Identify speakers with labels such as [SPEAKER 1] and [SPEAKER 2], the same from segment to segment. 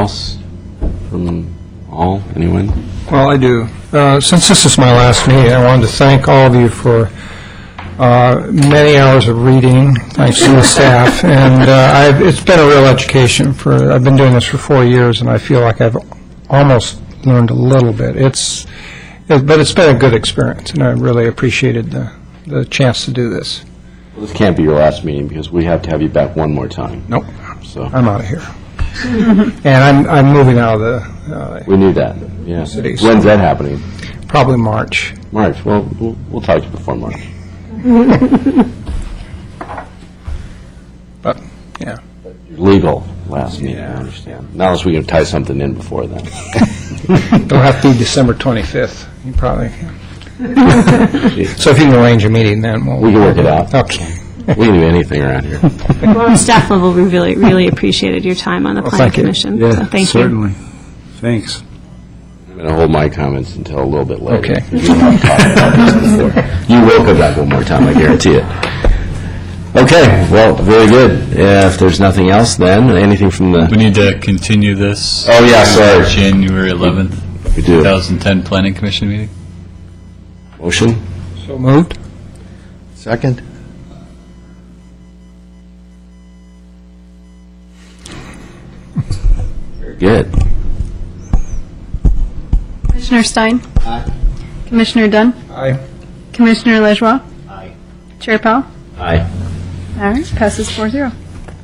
[SPEAKER 1] else from all, anyone?
[SPEAKER 2] Well, I do. Uh, Since this is my last meeting, I wanted to thank all of you for uh, many hours of reading, thanks to the staff, and uh, I've- it's been a real education for, I've been doing this for four years, and I feel like I've almost learned a little bit. It's, it- but it's been a good experience, and I really appreciated the the chance to do this.
[SPEAKER 1] Well, This can't be your last meeting, because we have to have you back one more time,
[SPEAKER 2] Nope,
[SPEAKER 1] so,
[SPEAKER 2] I'm out of here. And I'm I'm moving out of the, uh,
[SPEAKER 1] we need that, yeah.
[SPEAKER 2] Cities.
[SPEAKER 1] When's that happening?
[SPEAKER 2] probably March.
[SPEAKER 1] March, well, we'll we'll talk to you before March.
[SPEAKER 2] But, yeah.
[SPEAKER 1] Your Legal last meeting, I understand. Not unless we can tie something in before then.
[SPEAKER 2] It'll have to be December 25th, you probably. So if you can arrange a meeting then, we'll...
[SPEAKER 1] We can work it out.
[SPEAKER 2] Okay.
[SPEAKER 1] We can do anything around here.
[SPEAKER 3] Well, on staff level, we really, really appreciated your time on the planning
[SPEAKER 2] thank you.
[SPEAKER 3] commission. So thank you.
[SPEAKER 4] Certainly. Thanks.
[SPEAKER 1] I'm going to hold my comments until a little bit later.
[SPEAKER 2] Okay.
[SPEAKER 1] You and I have talked about this before. You will come back one more time, I guarantee it. Okay, well, very good. Yeah, If there's nothing else, then, anything from
[SPEAKER 5] We
[SPEAKER 1] the,
[SPEAKER 5] need to continue this.
[SPEAKER 1] Oh, yeah, sorry.
[SPEAKER 5] to January 11th,
[SPEAKER 1] we do,
[SPEAKER 5] 2010 Planning Commission meeting?
[SPEAKER 1] motion?
[SPEAKER 2] So moved?
[SPEAKER 6] Second?
[SPEAKER 1] Very good.
[SPEAKER 7] Commissioner Stein? Aye. Commissioner Dunn?
[SPEAKER 2] Aye.
[SPEAKER 7] Commissioner Lajoie? Aye. Chair Powell?
[SPEAKER 1] Aye.
[SPEAKER 7] All right, passes four zero.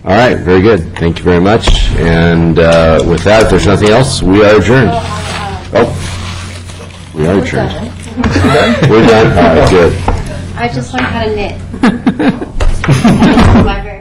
[SPEAKER 1] All right, very good. Thank you very much. And uh, with that, if there's nothing else, we are adjourned. Oh, we are adjourned. We're done, all right, good.
[SPEAKER 8] I just learned how to knit. Library.